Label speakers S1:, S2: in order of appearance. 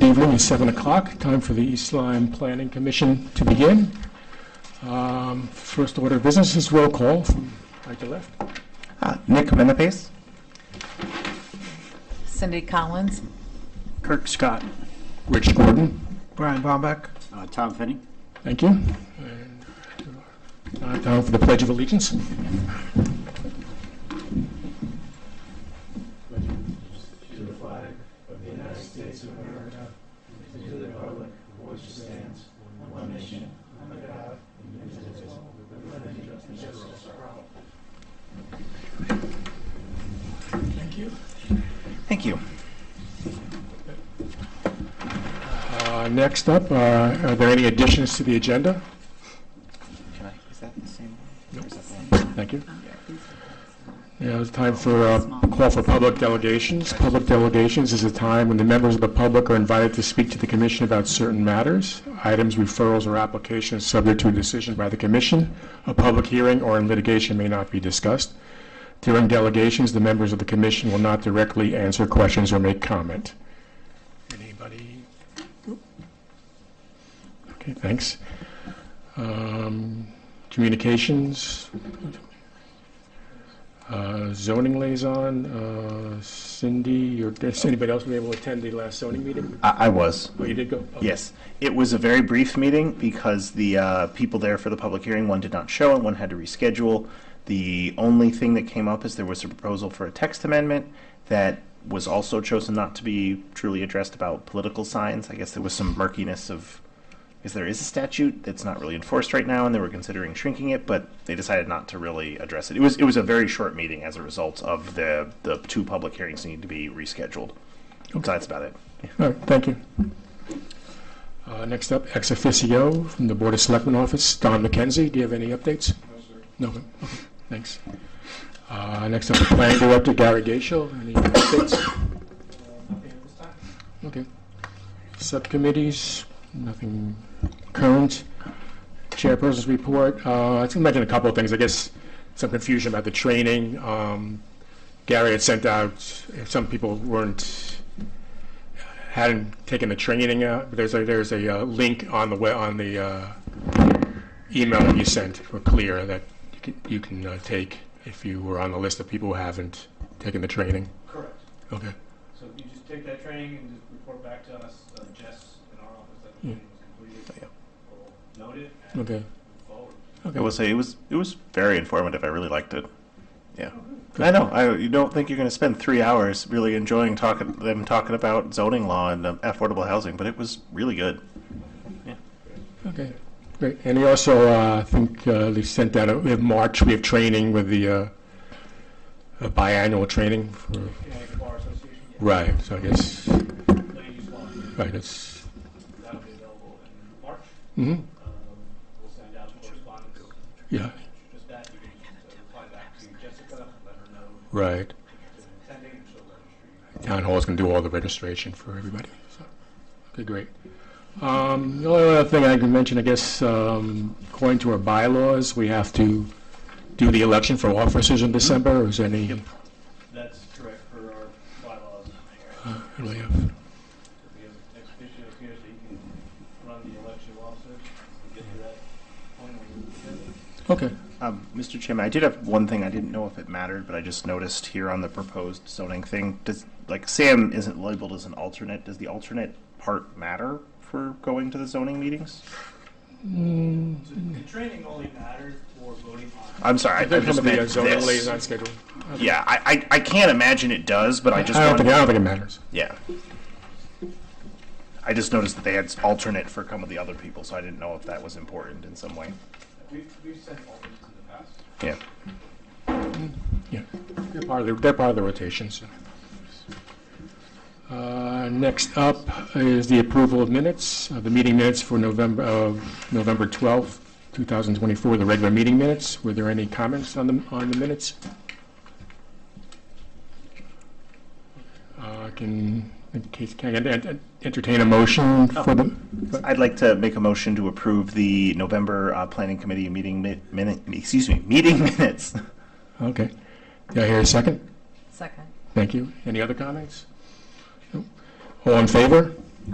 S1: evening is 7 o'clock, time for the East Lyme Planning Commission to begin. Um, First order of business is roll call from right to left.
S2: Uh, Nick Menapace,
S3: Cindy Collins.
S4: Kirk Scott.
S1: Rich Gordon.
S2: Brian Bombeck,
S4: Uh, Tom Finney.
S1: Thank you. And, uh, Time for the Pledge of Allegiance.
S2: thank you.
S1: Uh, Next up, uh, are there any additions to the agenda?
S2: Can I, is that the same?
S1: Nope.
S2: Nope.
S1: Thank you. Yeah, it's time for a call for public delegations. Public delegations is a time when the members of the public are invited to speak to the commission about certain matters, items, referrals, or applications subject to a decision by the commission. A public hearing or in litigation may not be discussed. During delegations, the members of the commission will not directly answer questions or make comment. Anybody? Okay, thanks. Um, Communications, uh, zoning liaison, uh, Cindy, or does anybody else be able to attend the last zoning meeting?
S5: I, I was.
S1: Oh, you did go? Okay.
S5: Yes, it was a very brief meeting because the uh, people there for the public hearing, one did not show and one had to reschedule. The only thing that came up is there was a proposal for a text amendment that was also chosen not to be truly addressed about political signs. I guess there was some murkiness of, because there is a statute that's not really enforced right now, and they were considering shrinking it, but they decided not to really address it. It was it was a very short meeting as a result of the the two public hearings needing to be rescheduled. So that's about it.
S1: All right, thank you. Uh, Next up, ex officio from the Board of Selectmen Office, Don McKenzie. Do you have any updates? No, sir. No, okay, thanks. Uh, Next up, Planning Director Gary Gaisel. Any updates? Okay. Subcommittees, nothing current. Chairperson's report, uh, I can mention a couple of things. I guess some confusion about the training. Um, Gary had sent out, some people weren't hadn't taken the training out, there's a, there's a uh, link on the, we- on the uh, email that you sent for Clear that you can, you can uh, take if you were on the list of people who haven't taken the training.
S6: Correct.
S1: Okay.
S6: So you just take that training and just report back to us, uh, Jess in our office, that the
S1: Yeah.
S6: training was
S5: Yeah.
S6: completed. We'll note it and
S1: Okay.
S6: move forward.
S5: I will say it was it was very informative. I really liked it. Yeah, I know. I you don't think you're going to spend three hours really enjoying talking them talking about zoning law and um, affordable housing, but it was really good.
S1: Okay. Great. And he also, uh, I think, uh, they sent out, a- in March, we have training with the uh, a biannual training. for-
S6: Connecticut Bar Association, yeah,
S1: Right. So I guess,
S6: ladies one,
S1: right, it's,
S6: that'll be available in March.
S1: mhm,
S6: Um, We'll send out correspondence,
S1: yeah,
S6: just that, you can just uh, reply back to Jessica, let her know
S1: right.
S6: it's attending, and she'll register you.
S1: town hall's going to do all the registration for everybody. so. Okay, great. Um, The only other thing I can mention, I guess, um, according to our bylaws, we have to do the election for officers in December, or is any,
S6: That's correct for our bylaws.
S1: really have-
S6: We have ex officio here, so you can run the election officer, and get to that point when you get it.
S1: okay,
S5: Um, Mr. Chairman, I did have one thing. I didn't know if it mattered, but I just noticed here on the proposed zoning thing. Does like Sam isn't labeled as an alternate? Does the alternate part matter for going to the zoning meetings? Mm.
S6: So The training only matters for voting on.
S5: I'm sorry. I, I
S1: They're
S5: just
S1: coming to the
S5: meant
S1: zoning
S5: this.
S1: liaison schedule.
S5: Yeah, I, I, I can't imagine it does, but I
S1: I
S5: just
S1: don't
S5: wanted-
S1: think, I don't think it matters.
S5: Yeah. I just noticed that they had alternate for some of the other people, so I didn't know if that was important in some way.
S6: We've, we've sent alternates in the past.
S5: Yeah.
S1: Yeah, they're part of the, they're part of the rotations. Uh, Next up is the approval of minutes, uh, the meeting minutes for November, of November 12th, 2024, the regular meeting minutes. Were there any comments on the, on the minutes? Uh, Can, in case- can I ent- ent- entertain a motion for the,
S5: I'd like to make a motion to approve the November uh, Planning Committee meeting mi- minute, excuse me, meeting minutes.
S1: okay. Do I hear a second?
S3: Second.
S1: Thank you. Any other comments? No. All in favor?